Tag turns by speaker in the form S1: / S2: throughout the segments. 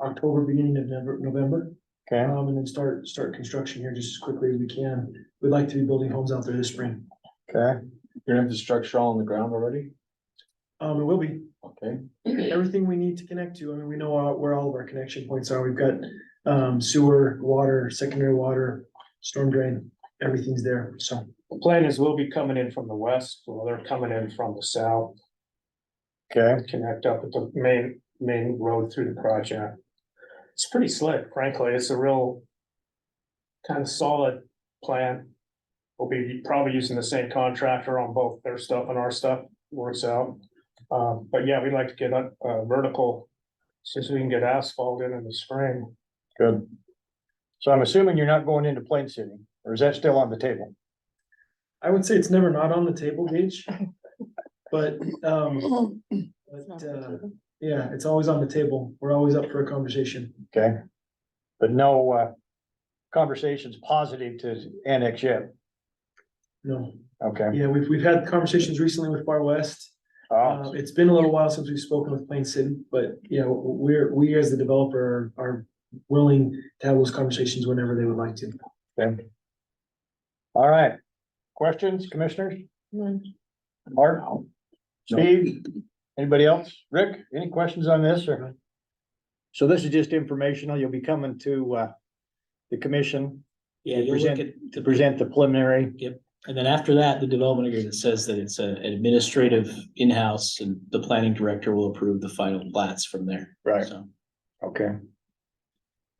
S1: October, beginning of November, November,
S2: Okay,
S1: um, and then start, start construction here just as quickly as we can. We'd like to be building homes out there this spring.
S2: okay,
S3: Your infrastructure all on the ground already?
S1: Um, it will be
S3: Okay,
S1: everything we need to connect to. I mean, we know all- where all of our connection points are. We've got um, sewer, water, secondary water, storm drain, everything's there, so.
S4: The plan is we'll be coming in from the west, well, they're coming in from the south,
S2: okay,
S4: connect up with the main, main road through the project. It's pretty slick, frankly, it's a real kind of solid plan. We'll be probably using the same contractor on both their stuff and our stuff, works out. Um, but yeah, we'd like to get a, a vertical, since we can get asphalt in in the spring.
S2: good. So I'm assuming you're not going into Plain City, or is that still on the table?
S1: I would say it's never not on the table, Gage. But, um, but, uh, yeah, it's always on the table. We're always up for a conversation.
S2: Okay. But no, uh, conversations positive to annex yet,
S1: No,
S2: okay?
S1: yeah, we've, we've had conversations recently with Far West.
S2: Oh,
S1: Uh, it's been a little while since we've spoken with Plain City, but, you know, we're, we as the developer are willing to have those conversations whenever they would like to.
S2: okay. All right, questions, commissioners? Mark? Steve? Anybody else? Rick, any questions on this or? So this is just informational. You'll be coming to, uh, the commission
S5: Yeah, you'll look
S2: present-
S5: at,
S2: to present the preliminary.
S5: and then after that, the development agreement says that it's a- an administrative in-house and the planning director will approve the final plats from there.
S2: Right.
S5: So,
S2: Okay.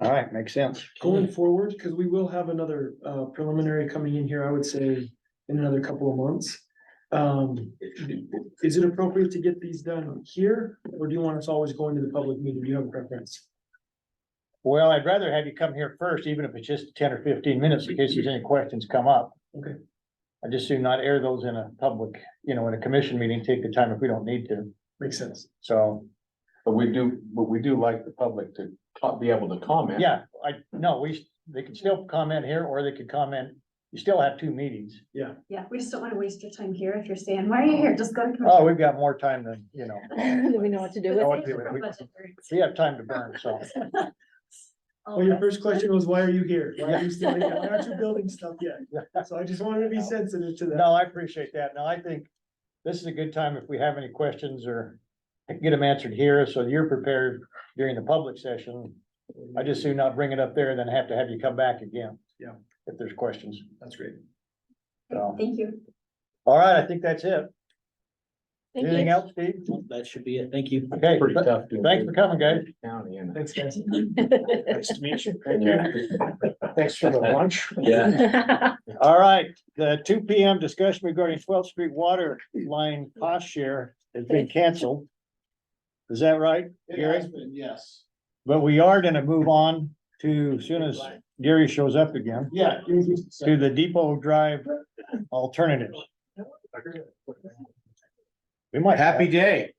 S2: All right, makes sense.
S1: Going forward, because we will have another uh preliminary coming in here, I would say, in another couple of months. Um, is it appropriate to get these done here, or do you want us always going to the public meeting? Do you have a preference?
S2: Well, I'd rather have you come here first, even if it's just ten or fifteen minutes, in case there's any questions come up.
S1: Okay.
S2: I just do not air those in a public, you know, in a commission meeting, take the time if we don't need to.
S1: Makes sense.
S2: So,
S3: but we do, but we do like the public to co- be able to comment.
S2: yeah, I, no, we, they can still comment here or they could comment. You still have two meetings.
S6: Yeah, we just don't wanna waste your time here if you're saying, why are you here? Just go to.
S2: Oh, we've got more time than, you know,
S7: Do we know what to do
S2: Oh,
S7: with
S2: what
S7: it?
S2: do we- we have time to burn, so.
S7: Oh,
S1: Well, your first question was, why are you here? Why are you still here? Why aren't you building stuff yet? So I just wanted to be sensitive to that.
S2: No, I appreciate that. Now, I think this is a good time if we have any questions or get them answered here, so you're prepared during the public session. I just do not bring it up there and then have to have you come back again.
S1: Yeah.
S2: If there's questions.
S1: That's great.
S2: So,
S6: Thank you.
S2: all right, I think that's it.
S7: Thank
S2: Anything
S7: you.
S2: else, Steve?
S5: That should be it. Thank you.
S2: Okay,
S3: Pretty tough. doing
S2: thanks for coming, guys.
S3: business in County and.
S1: Thanks, guys.
S4: Nice to meet you.
S3: Yeah.
S4: Thanks for the lunch.
S3: Yeah.
S2: All right, the two P M discussion regarding twelfth street water line cost share has been canceled. Is that right? Gary?
S3: yes.
S2: But we are gonna move on to soon as Gary shows up again,
S3: Yeah.
S2: to the Depot Drive alternative. We might. Happy day.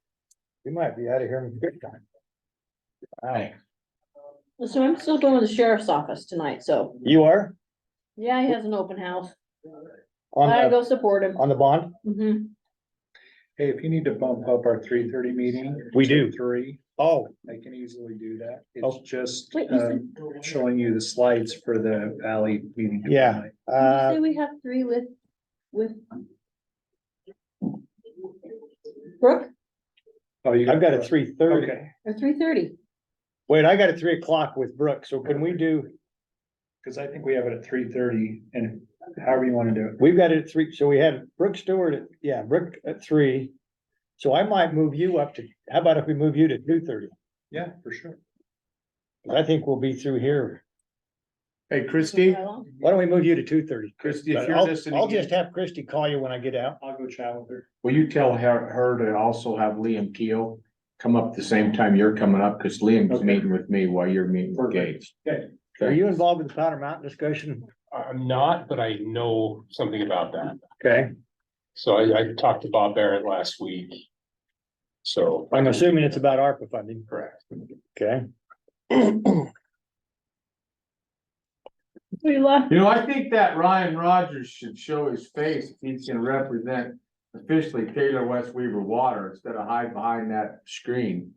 S2: We might be out of here in good time. Wow,
S7: So I'm still going to the sheriff's office tonight, so,
S2: you are
S7: yeah, he has an open house.
S2: on
S7: I
S2: the,
S7: go support him.
S2: on the bond?
S7: Mhm.
S8: Hey, if you need to bump up our three thirty meeting.
S2: We
S8: to
S2: do.
S8: Three,
S2: Oh,
S8: I can easily do that.
S2: Oh.
S8: It's just
S7: Wait, you
S8: um, showing you the slides for the valley meeting.
S2: Yeah.
S8: tonight.
S7: Did you
S2: uh,
S7: Say we have three with, with. Brooke,
S8: Oh, you.
S2: I've got a three thirty.
S8: Okay,
S7: or three thirty?
S2: Wait, I got a three o'clock with Brooke, so can we do,
S8: because I think we have it at three thirty and however you want to do it.
S2: we've got it at three, so we had Brooke Stewart, at yeah, Brooke at three. So I might move you up to, how about if we move you to two thirty?
S8: Yeah, for sure.
S2: I think we'll be through here.
S3: Hey,
S7: Steve?
S2: Why don't we move you to two thirty?
S3: Christie, if you're
S2: I'll,
S3: listening
S2: I'll
S3: in-
S2: just have Christie call you when I get out.
S8: I'll go chat with her.
S3: Will you tell her, her to also have Liam Keel come up the same time you're coming up, because Liam's
S8: Okay.
S3: meeting with me while you're meeting with
S8: Perfect.
S3: Gates.
S2: Are you involved in the Powder Mountain discussion?
S9: I'm not, but I know something about that.
S2: Okay,
S9: So I, I talked to Bob Barrett last week. So.
S2: I'm assuming it's about ARPA funding.
S9: Correct.
S2: Okay,
S7: We love,
S3: You know, I think that Ryan Rogers should show his face if he's gonna represent officially Taylor West Weaver Water instead of hide behind that screen.